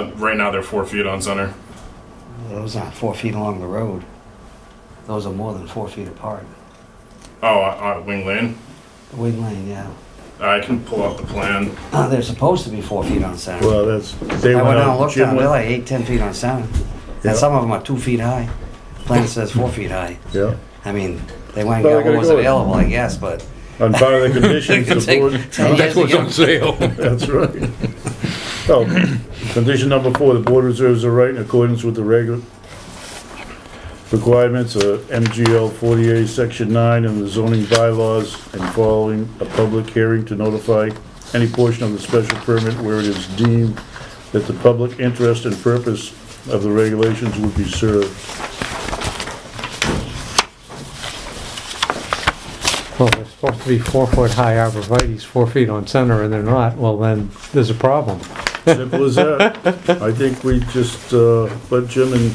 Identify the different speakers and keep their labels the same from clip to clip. Speaker 1: Uh, Right now, they're four feet on center.
Speaker 2: Those aren't four feet along the road. Those are more than four feet apart.
Speaker 1: Oh, uh, uh, wing lane.
Speaker 2: The Wing lane, yeah.
Speaker 1: I can pull out the plan.
Speaker 2: Uh, They're supposed to be four feet on center.
Speaker 3: Well, that's, they
Speaker 2: I went
Speaker 3: went
Speaker 2: down and
Speaker 3: out,
Speaker 2: looked
Speaker 3: Jim
Speaker 2: at them, they're
Speaker 3: went,
Speaker 2: like eight, ten feet on center.
Speaker 3: Yeah.
Speaker 2: And some of them are two feet high. Plan says four feet high.
Speaker 3: yeah.
Speaker 2: I mean, they went and got
Speaker 3: Well, they gotta
Speaker 2: what was
Speaker 3: go with-
Speaker 2: available, I guess, but.
Speaker 3: On part of the
Speaker 2: it could
Speaker 3: conditions, the
Speaker 2: take
Speaker 3: board,
Speaker 2: 10 years
Speaker 4: That's
Speaker 2: to
Speaker 4: what's
Speaker 2: get
Speaker 4: on sale.
Speaker 3: that's right. Oh, condition number four, the board reserves the right in accordance with the regular requirements of MGL forty-eight, section nine, and the zoning bylaws, and following a public hearing to notify any portion of the special permit where it is deemed that the public interest and purpose of the regulations would be served.
Speaker 5: Well, they're supposed to be four-foot high arborvitae's, four feet on center, and they're not, well, then there's a problem.
Speaker 3: Simple as that. I think we just, uh, let Jim and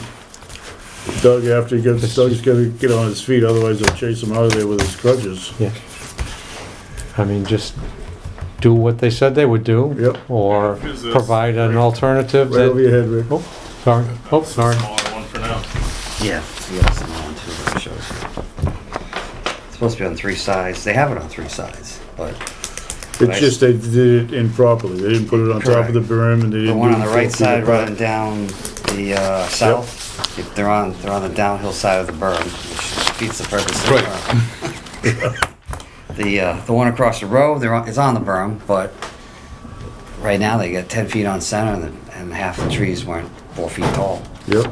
Speaker 3: Doug, after he gets, Doug's gotta get on his feet, otherwise they'll chase him out of there with his crutches.
Speaker 5: Yeah. I mean, just do what they said they would do.
Speaker 3: Yep.
Speaker 5: Or
Speaker 1: Is this-
Speaker 5: provide an alternative
Speaker 3: Right over
Speaker 5: that,
Speaker 3: your head, Rick.
Speaker 5: oh, sorry, oh, sorry.
Speaker 1: Smaller one for now.
Speaker 2: Yeah, you got some on too, but it shows. It's supposed to be on three sides. They have it on three sides, but
Speaker 3: It's just they did it improperly. They didn't put it on top of the berm and they didn't.
Speaker 2: the one
Speaker 3: do
Speaker 2: on the
Speaker 3: it
Speaker 2: right
Speaker 3: four feet
Speaker 2: side
Speaker 3: apart.
Speaker 2: running down the uh, south, if they're on, they're on the downhill side of the berm, which defeats the purpose of the
Speaker 4: Right.
Speaker 2: berm. The, uh, the one across the road, they're on, it's on the berm, but right now they got ten feet on center and, and half the trees weren't four feet tall.
Speaker 3: Yep.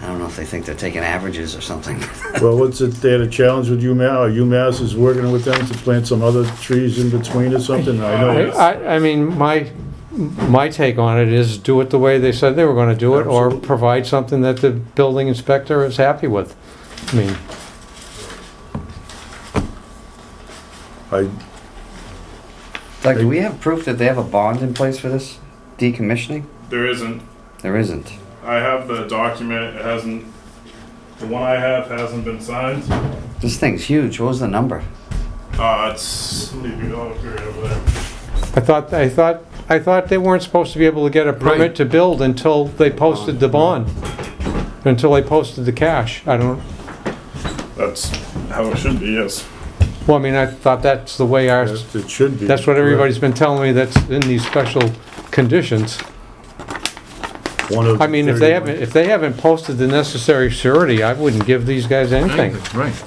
Speaker 2: I don't know if they think they're taking averages or something.
Speaker 3: Well, what's it, they had a challenge with UMass, or UMass is working with them to plant some other trees in between or something? I
Speaker 5: I,
Speaker 3: know.
Speaker 5: I- I mean, my, my take on it is do it the way they said they were gonna do it, or
Speaker 3: Absolutely.
Speaker 5: provide something that the building inspector is happy with. I mean,
Speaker 3: I,
Speaker 2: Doug, do we have proof that they have a bond in place for this decommissioning?
Speaker 1: There isn't.
Speaker 2: There isn't.
Speaker 1: I have the document. It hasn't. The one I have hasn't been signed.
Speaker 2: This thing's huge. What was the number?
Speaker 1: Uh, it's. Leave me alone, right over there.
Speaker 5: I thought, I thought, I thought they weren't supposed to be able to get a permit
Speaker 4: Right.
Speaker 5: to build until they posted the bond, until they posted the cash. I don't,
Speaker 1: That's how it should be. Yes.
Speaker 5: well, I mean, I thought that's the way our,
Speaker 3: it should be.
Speaker 5: that's what everybody's been telling me, that's in these special conditions.
Speaker 3: One of
Speaker 5: I mean, if they
Speaker 3: 31.
Speaker 5: haven't, if they haven't posted the necessary surety, I wouldn't give these guys anything.
Speaker 4: Right.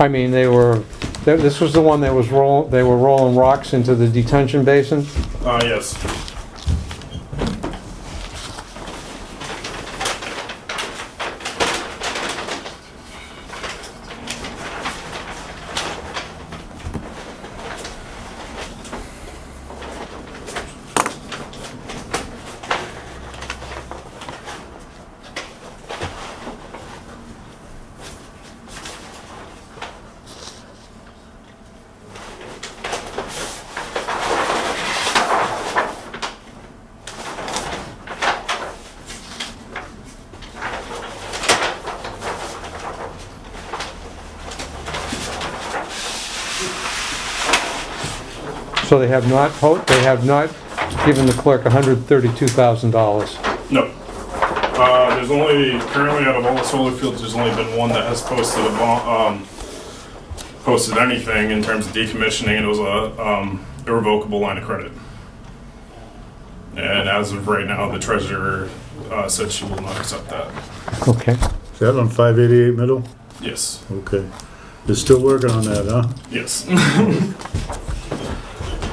Speaker 5: I mean, they were, th- this was the one that was roll, they were rolling rocks into the detention basin.
Speaker 1: Uh, yes.
Speaker 5: So they have not, po- they have not given the clerk $132,000.
Speaker 1: No. Uh, there's only currently out of all the solar fields, there's only been one that has posted a bond, um, posted anything in terms of decommissioning, and it was a um, irrevocable line of credit. And as of right now, the treasurer uh, said she will not accept that.
Speaker 5: Okay.
Speaker 3: Is that on five eighty-eight middle?
Speaker 1: Yes.
Speaker 3: Okay. They're still working on that, huh?
Speaker 1: Yes.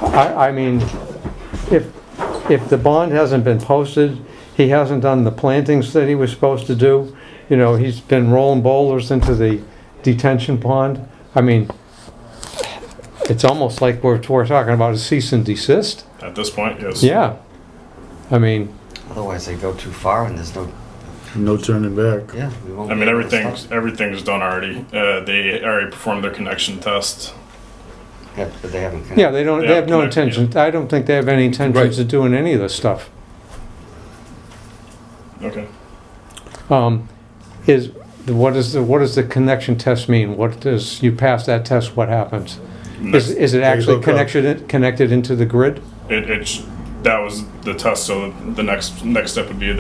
Speaker 5: I, I mean, if, if the bond hasn't been posted, he hasn't done the plantings that he was supposed to do, you know, he's been rolling boulders into the detention pond. I mean, it's almost like we're, we're talking about a cease and desist.
Speaker 1: At this point, yes.
Speaker 5: Yeah. I mean,
Speaker 2: Otherwise, they go too far and there's no,
Speaker 3: No turning back.
Speaker 2: yeah. we won't
Speaker 1: I
Speaker 2: be
Speaker 1: mean,
Speaker 2: able to stop.
Speaker 1: everything's everything's done already. Uh, they already performed their connection test.
Speaker 2: Yeah, but they haven't.
Speaker 5: yeah, they don't, they have no
Speaker 1: Yeah.
Speaker 5: intention, I don't think they have any intentions of doing any of this stuff.
Speaker 1: Okay.
Speaker 5: Um, Is, what is, the what does the connection test mean? What does, you pass that test, what happens? Is, is it
Speaker 3: They
Speaker 5: actually
Speaker 3: hook up.
Speaker 5: connected, connected into the grid?
Speaker 1: It, it sh- that was the test, so the next, next step would be a